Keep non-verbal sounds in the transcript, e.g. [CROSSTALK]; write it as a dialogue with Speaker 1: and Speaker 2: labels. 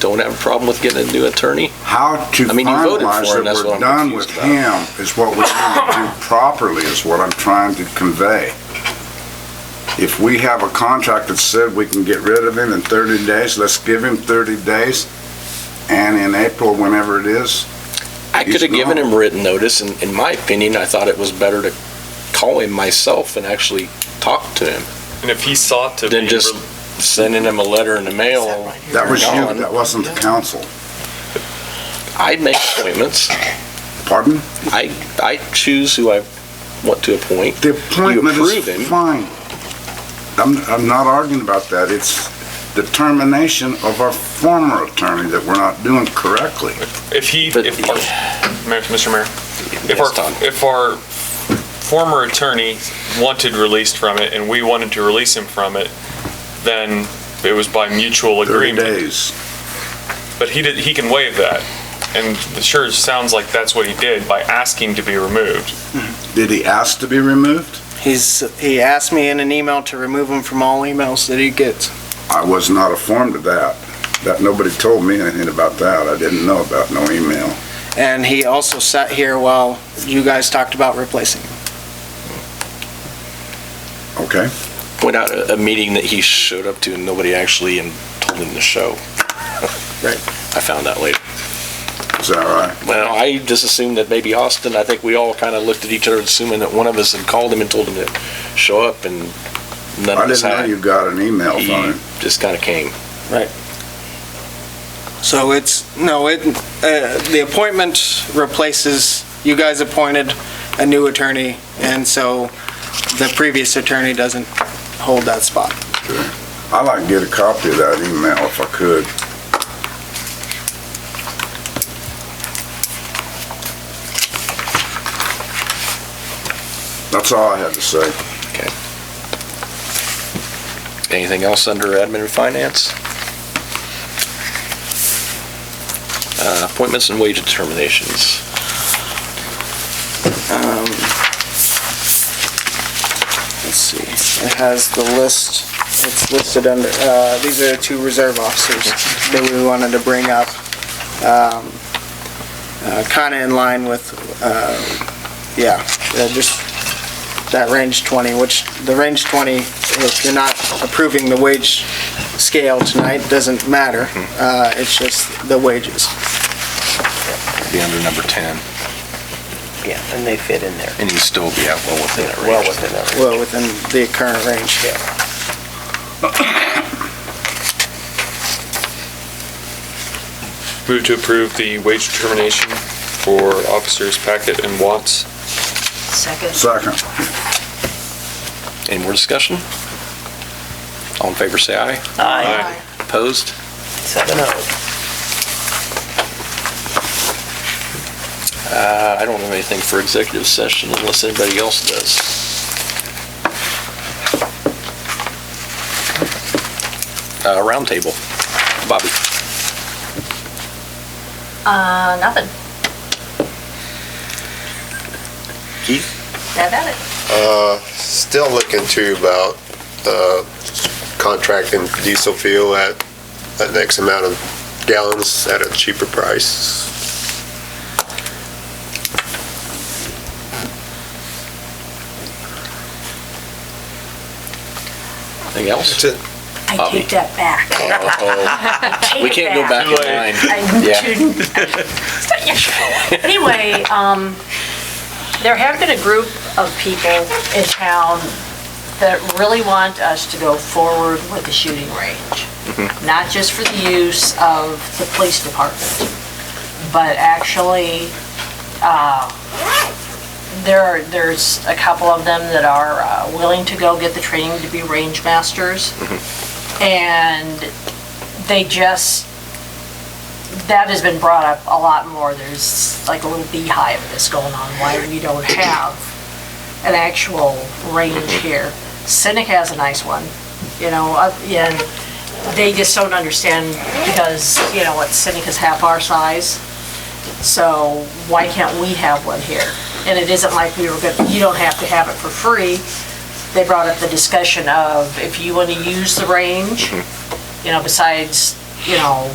Speaker 1: don't have a problem with getting a new attorney.
Speaker 2: How to
Speaker 1: I mean, you voted for
Speaker 2: finalize
Speaker 1: him, that's
Speaker 2: that
Speaker 1: what
Speaker 2: we're
Speaker 1: I'm
Speaker 2: done with
Speaker 1: confused
Speaker 2: him is what we need to do properly, is what I'm trying to convey. If we have a contract that said we can get rid of him in 30 days, let's give him 30 days, and in April, whenever it is,
Speaker 1: I could have
Speaker 2: He's
Speaker 1: given
Speaker 2: gone.
Speaker 1: him written notice, and in my opinion, I thought it was better to call him myself and actually talk to him
Speaker 3: And if he sought to
Speaker 1: than
Speaker 3: be
Speaker 1: just sending him a letter in the mail.
Speaker 2: that was you,
Speaker 1: Gone.
Speaker 2: that wasn't the council.
Speaker 1: I make appointments.
Speaker 2: Pardon?
Speaker 1: I, I choose who I want to appoint.
Speaker 2: The appointment
Speaker 1: approve him.
Speaker 2: is fine. I'm, I'm not arguing about that. It's the termination of our former attorney that we're not doing correctly.
Speaker 3: if he
Speaker 1: But-
Speaker 3: if our, Mayor- Mr. Mayor, if
Speaker 1: Yes,
Speaker 3: our
Speaker 1: Tom.
Speaker 3: if our former attorney wanted released from it and we wanted to release him from it, then it was by mutual
Speaker 2: 30
Speaker 3: agreement.
Speaker 2: days.
Speaker 3: But he did he can waive that. And it sure sounds like that's what he did by asking to be removed.
Speaker 2: Did he ask to be removed?
Speaker 4: He's, he asked me in an email to remove him from all emails that he gets.
Speaker 2: I was not informed of that. That, nobody told me anything about that. I didn't know about no email.
Speaker 4: And he also sat here while you guys talked about replacing him.
Speaker 2: Okay?
Speaker 1: Point out a, a meeting that he showed up to and nobody actually and told him to show. [LAUGHS]
Speaker 2: Right.
Speaker 1: I found that later.
Speaker 2: Is that all right?
Speaker 1: Well, I just assumed that maybe Austin, I think we all kind of looked at each other assuming that one of us had called him and told him to show up and none
Speaker 2: I
Speaker 1: of us
Speaker 2: didn't know
Speaker 1: had.
Speaker 2: you got an email from
Speaker 1: He
Speaker 2: him.
Speaker 1: just kind of came.
Speaker 4: So it's, no, it, uh, the appointment replaces, you guys appointed a new attorney, and so the previous attorney doesn't hold that spot.
Speaker 2: I'd like to get a copy of that email if I could. That's all I had to say.
Speaker 1: Anything else under admin and finance? Uh, Appointments and wage determinations.
Speaker 4: Let's see, it has the list, it's listed under, uh, these are the two reserve officers that we wanted to bring up. Um, uh, kinda in line with, uh, yeah, uh, just that range twenty, which, the range twenty, if you're not approving the wage scale tonight, doesn't matter. Uh, it's just the wages.
Speaker 1: Be under number 10,
Speaker 5: Yeah, and they fit in there,
Speaker 1: and you still be out well within it,
Speaker 5: well within that.
Speaker 4: well within the current range.
Speaker 3: Move to approve the wage determination for officers Packett and Watts.
Speaker 6: Second.
Speaker 2: Second.
Speaker 1: Any more discussion? All in favor, say aye.
Speaker 5: Aye.
Speaker 1: Opposed?
Speaker 5: Seven oh.
Speaker 1: Uh, I don't have anything for executive session unless anybody else does. Uh, Roundtable. Bobby,
Speaker 6: Uh, nothing.
Speaker 1: Keith?
Speaker 6: That about it.
Speaker 7: Uh, Still looking to about uh, contracting diesel fuel at that next amount of gallons at a cheaper price.
Speaker 1: anything else?
Speaker 3: [LAUGHS]
Speaker 7: That's it.
Speaker 6: I
Speaker 1: Bobby.
Speaker 6: take that back. Take
Speaker 1: We
Speaker 6: it
Speaker 1: can't go back
Speaker 3: Too late.
Speaker 1: in line.
Speaker 6: I
Speaker 1: Yeah.
Speaker 6: shouldn't. It's not your fault. [LAUGHS] Anyway, um, there have been a group of people in town that really want us to go forward with the shooting range. Not just for the use of the police department, but actually, uh, there are, there's a couple of them that are uh, willing to go get the training to be range masters. And they just, that has been brought up a lot more. There's like a little beehive of this going on, why we don't have an actual range here. Cynic has a nice one, you know, up- and they just don't understand because, you know, what, Cynic is half our size. So why can't we have one here? And it isn't like we were gonna, you don't have to have it for free. They brought up the discussion of if you want to use the range, you know, besides, you know,